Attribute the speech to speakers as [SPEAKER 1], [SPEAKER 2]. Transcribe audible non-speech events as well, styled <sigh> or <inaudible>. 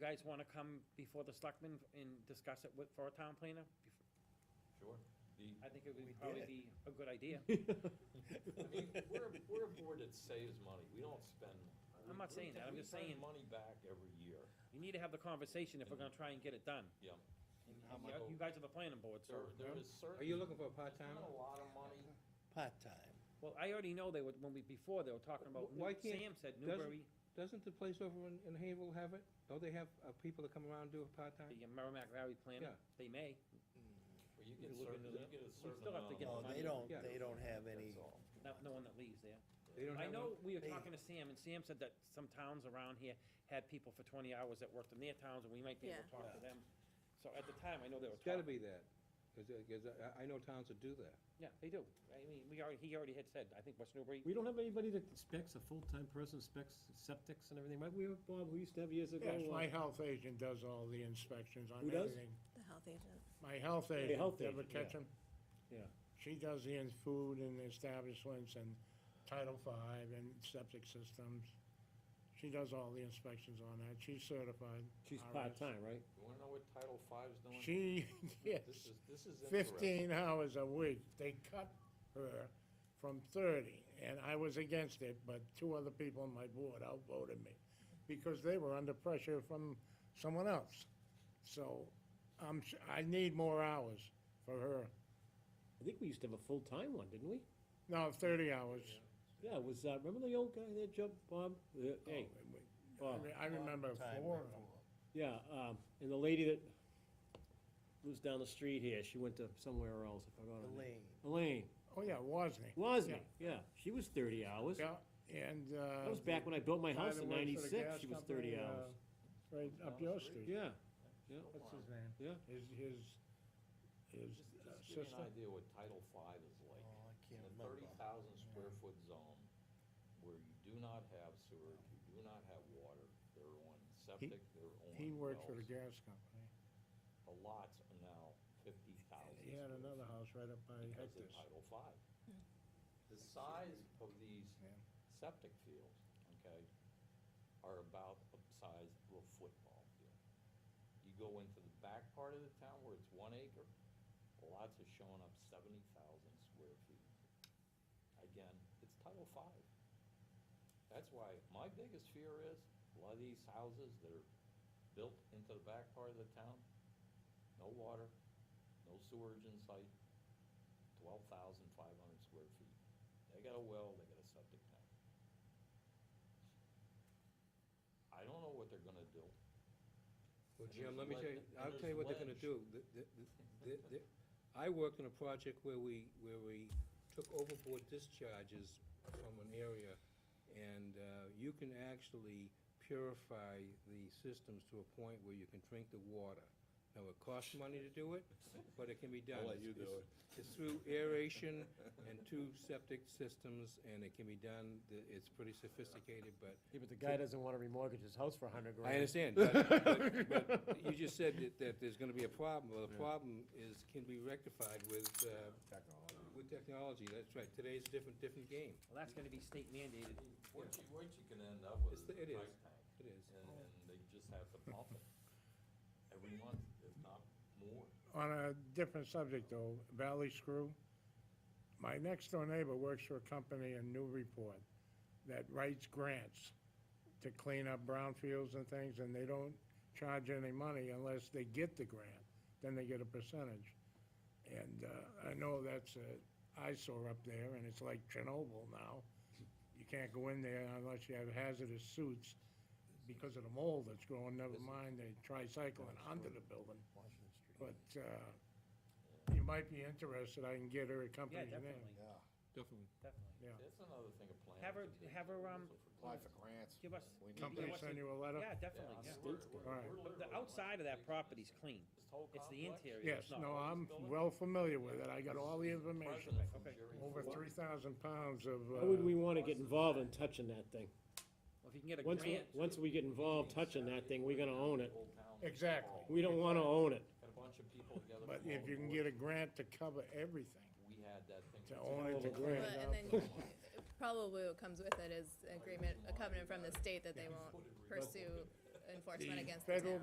[SPEAKER 1] guys wanna come before the selectmen and discuss it with, for a town planner?
[SPEAKER 2] Sure. The,
[SPEAKER 1] I think it
[SPEAKER 3] We
[SPEAKER 1] would probably
[SPEAKER 3] did.
[SPEAKER 1] be a good
[SPEAKER 3] <laughs>
[SPEAKER 1] idea.
[SPEAKER 2] I mean, we're, a- we're a board that saves money, we don't spend.
[SPEAKER 1] I'm not
[SPEAKER 2] we-
[SPEAKER 1] saying that. I'm
[SPEAKER 2] we
[SPEAKER 1] just
[SPEAKER 2] turn
[SPEAKER 1] saying-
[SPEAKER 2] money back every year,
[SPEAKER 1] You need to have the conversation if we're gonna try and get it done.
[SPEAKER 2] yeah.
[SPEAKER 1] And
[SPEAKER 3] How
[SPEAKER 4] Oh.
[SPEAKER 1] You you guys are the planning board, so,
[SPEAKER 2] There, there is certain.
[SPEAKER 4] Are you looking for a
[SPEAKER 2] Not
[SPEAKER 4] part-time?
[SPEAKER 2] a lot of money,
[SPEAKER 3] part-time.
[SPEAKER 1] well, I already know they were, when we, before, they were talking about, New-
[SPEAKER 4] Why can't-
[SPEAKER 1] Sam said
[SPEAKER 4] doesn't-
[SPEAKER 1] Newbury,
[SPEAKER 4] Doesn't the place over in, in Havel have it? Don't they have, uh, people that come around and do a part-time?
[SPEAKER 1] the Merrimack Valley planner,
[SPEAKER 4] Yeah.
[SPEAKER 1] they may.
[SPEAKER 2] where
[SPEAKER 1] You
[SPEAKER 2] you get
[SPEAKER 1] look
[SPEAKER 2] certain,
[SPEAKER 1] into
[SPEAKER 2] you
[SPEAKER 1] that.
[SPEAKER 2] get a
[SPEAKER 1] We
[SPEAKER 2] certain
[SPEAKER 1] still have
[SPEAKER 2] amount
[SPEAKER 1] to
[SPEAKER 2] of
[SPEAKER 1] get
[SPEAKER 2] money,
[SPEAKER 1] the
[SPEAKER 3] No, they
[SPEAKER 1] money.
[SPEAKER 3] don't,
[SPEAKER 4] Yeah.
[SPEAKER 3] they don't have any,
[SPEAKER 2] that's all.
[SPEAKER 1] not no one that leaves there.
[SPEAKER 4] They don't
[SPEAKER 1] I
[SPEAKER 4] have one?
[SPEAKER 1] know, we were
[SPEAKER 3] They-
[SPEAKER 1] talking to Sam, and Sam said that some towns around here had people for twenty hours that worked in their towns, and we might be able to
[SPEAKER 5] Yeah.
[SPEAKER 1] talk to them. So at the time, I know they were
[SPEAKER 4] It's gotta
[SPEAKER 1] talking,
[SPEAKER 4] be that, 'cause, uh, 'cause I, I know towns that do that.
[SPEAKER 1] yeah, they do. I mean, we already, he already had said, I think West Newbury,
[SPEAKER 6] We don't have anybody that specs, a full-time person specs septics and everything, right? We, have Bob, we used to have years ago.
[SPEAKER 7] Yes,
[SPEAKER 6] uh,
[SPEAKER 7] my health agent does all the inspections on
[SPEAKER 6] Who does?
[SPEAKER 7] everything.
[SPEAKER 5] The health agent.
[SPEAKER 7] My health
[SPEAKER 6] health
[SPEAKER 7] agent, Deborah
[SPEAKER 6] agent, yeah.
[SPEAKER 7] Ketchum.
[SPEAKER 6] Yeah.
[SPEAKER 7] She does the in- food and establishments and Title V and septic systems. She does all the inspections on that. She's certified.
[SPEAKER 6] She's
[SPEAKER 7] RS.
[SPEAKER 6] part-time, right?
[SPEAKER 2] You wanna know what Title V's doing?
[SPEAKER 7] She, <laughs> yes,
[SPEAKER 2] This is, this is interesting.
[SPEAKER 7] fifteen hours a week. They cut her from thirty, and I was against it, but two other people on my board outvoted me because they were under pressure from someone else. So I'm, s- I need more hours for her.
[SPEAKER 6] I think we used to have a full-time one, didn't we?
[SPEAKER 7] No, thirty hours.
[SPEAKER 6] Yeah, it was, uh, remember the old guy that jumped, Bob? The- Hey,
[SPEAKER 7] Oh, I
[SPEAKER 6] Bob,
[SPEAKER 7] re- I remember
[SPEAKER 3] Part-time
[SPEAKER 7] four of them.
[SPEAKER 3] before.
[SPEAKER 6] yeah, um, and the lady that lives down the street here, she went to somewhere else, I forgot her name.
[SPEAKER 3] Elaine,
[SPEAKER 6] Elaine,
[SPEAKER 7] Oh, yeah, Wozni.
[SPEAKER 6] Wasn't, yeah, she was thirty hours.
[SPEAKER 7] Yeah, and, uh.
[SPEAKER 6] That was back when I built my
[SPEAKER 7] the guy
[SPEAKER 6] house
[SPEAKER 7] that
[SPEAKER 6] in
[SPEAKER 7] works for
[SPEAKER 6] ninety-six,
[SPEAKER 7] the gas
[SPEAKER 6] she was
[SPEAKER 7] company,
[SPEAKER 6] thirty
[SPEAKER 7] uh,
[SPEAKER 6] hours.
[SPEAKER 7] Right up your street.
[SPEAKER 6] Yeah,
[SPEAKER 7] What's his name?
[SPEAKER 6] Yeah.
[SPEAKER 7] His, his, his
[SPEAKER 2] Just
[SPEAKER 7] uh,
[SPEAKER 2] just give you
[SPEAKER 7] sister.
[SPEAKER 2] an idea what Title V is
[SPEAKER 3] oh,
[SPEAKER 2] like.
[SPEAKER 3] I
[SPEAKER 2] In
[SPEAKER 3] can't
[SPEAKER 2] a
[SPEAKER 3] remember.
[SPEAKER 2] thirty thousand square foot zone, where you do not have sewer, you do not have water, they're on septic, they're on
[SPEAKER 7] He worked for the
[SPEAKER 2] wells.
[SPEAKER 7] gas company.
[SPEAKER 2] The lots are now fifty thousand.
[SPEAKER 7] He had another house right up by
[SPEAKER 2] Because of
[SPEAKER 7] Hector's.
[SPEAKER 2] Title V. The size of these
[SPEAKER 7] Yeah.
[SPEAKER 2] septic fields, okay, are about the size of a football field. You go into the back part of the town where it's one acre, the lots are showing up seventy thousand square feet. Again, it's Title V. That's why my biggest fear is, a lot of these houses that are built into the back part of the town, no water, no sewerage in sight, twelve thousand five hundred square feet. They got a well, they got a septic tank. I don't know what they're gonna do.
[SPEAKER 4] Well,
[SPEAKER 2] And
[SPEAKER 4] Jim,
[SPEAKER 2] there's
[SPEAKER 4] let me
[SPEAKER 2] le-
[SPEAKER 4] tell you,
[SPEAKER 2] and
[SPEAKER 4] I'll
[SPEAKER 2] there's
[SPEAKER 4] tell you what they're gonna
[SPEAKER 2] ledge.
[SPEAKER 4] do. The- the- the- the- the- I worked on a project where we, where we took overboard discharges from an area, and uh, you can actually purify the systems to a point where you can drink the water. Now, it costs money to do it, but it can be done.
[SPEAKER 2] let you do
[SPEAKER 4] It's- It's through aeration and two septic systems, and it can be done. The- It's pretty sophisticated, but
[SPEAKER 6] yeah, but the guy doesn't wanna remortgage his house for a hundred grand.
[SPEAKER 4] I understand, but, but- but you just said that, that there's gonna be a problem, well, the problem is, can be rectified with, uh, with technology, that's right, today's a different, different game,
[SPEAKER 1] well, that's gonna be state mandated.
[SPEAKER 2] What you, what you can end up with
[SPEAKER 4] It's
[SPEAKER 2] is
[SPEAKER 4] the-
[SPEAKER 2] a
[SPEAKER 4] it is.
[SPEAKER 2] price tank,
[SPEAKER 4] it is.
[SPEAKER 2] and, and they just have to pump it every month, if not more.
[SPEAKER 7] On a different subject though, Valley Screw, my next door neighbor works for a company in Newburyport that writes grants to clean up brownfields and things, and they don't charge any money unless they get the grant, then they get a percentage. And, uh, I know that's a eyesore up there, and it's like Chernobyl now. You can't go in there unless you have hazardous suits because of the mold that's growing, never mind the tricycline under the building.
[SPEAKER 3] Washington Street.
[SPEAKER 7] But uh, you might be interested, I can get her a
[SPEAKER 1] Yeah,
[SPEAKER 7] company's name.
[SPEAKER 1] definitely,
[SPEAKER 3] Yeah,
[SPEAKER 4] Definitely.
[SPEAKER 1] definitely.
[SPEAKER 7] Yeah.
[SPEAKER 2] That's another thing a planner.
[SPEAKER 1] Have her-
[SPEAKER 2] can do.
[SPEAKER 1] have her, um,
[SPEAKER 2] Also for
[SPEAKER 3] apply for
[SPEAKER 2] planners.
[SPEAKER 3] grants.
[SPEAKER 1] Give us-
[SPEAKER 3] We need
[SPEAKER 1] Company
[SPEAKER 3] to-
[SPEAKER 7] Company
[SPEAKER 1] send
[SPEAKER 7] send you a letter?
[SPEAKER 1] Yeah,
[SPEAKER 2] Yeah,
[SPEAKER 1] definitely, yeah.
[SPEAKER 2] we're-
[SPEAKER 6] States
[SPEAKER 2] we're-
[SPEAKER 7] All right.
[SPEAKER 2] we're
[SPEAKER 1] But
[SPEAKER 2] literally
[SPEAKER 1] The outside of that
[SPEAKER 2] like-
[SPEAKER 1] property's clean,
[SPEAKER 2] This whole
[SPEAKER 1] it's the
[SPEAKER 2] complex,
[SPEAKER 1] interior
[SPEAKER 7] Yes,
[SPEAKER 1] that's not.
[SPEAKER 7] no, I'm
[SPEAKER 2] Building?
[SPEAKER 7] well familiar with it, I got all the information,
[SPEAKER 2] president from
[SPEAKER 1] Okay.
[SPEAKER 2] Jerry
[SPEAKER 7] over
[SPEAKER 2] Ford.
[SPEAKER 7] three thousand pounds of,
[SPEAKER 6] Why would we
[SPEAKER 7] uh,
[SPEAKER 6] wanna get involved in touching that thing?
[SPEAKER 1] Well, If you can get a
[SPEAKER 6] Once, we-
[SPEAKER 1] grant,
[SPEAKER 6] once we get involved touching that thing, we're gonna own it.
[SPEAKER 2] Old Town
[SPEAKER 7] Exactly.
[SPEAKER 2] Hall.
[SPEAKER 6] We don't wanna own it.
[SPEAKER 2] Got a bunch of people together.
[SPEAKER 7] but
[SPEAKER 2] from all
[SPEAKER 7] if you can
[SPEAKER 2] over.
[SPEAKER 7] get a grant to cover everything,
[SPEAKER 2] We had that thing.
[SPEAKER 7] to own it, to
[SPEAKER 6] Well,
[SPEAKER 7] clean
[SPEAKER 5] But,
[SPEAKER 7] it
[SPEAKER 5] and
[SPEAKER 7] up.
[SPEAKER 5] then you- probably what comes with it is agreement, a covenant from the state that they won't pursue enforcement
[SPEAKER 7] The
[SPEAKER 5] against the
[SPEAKER 7] federal
[SPEAKER 5] town.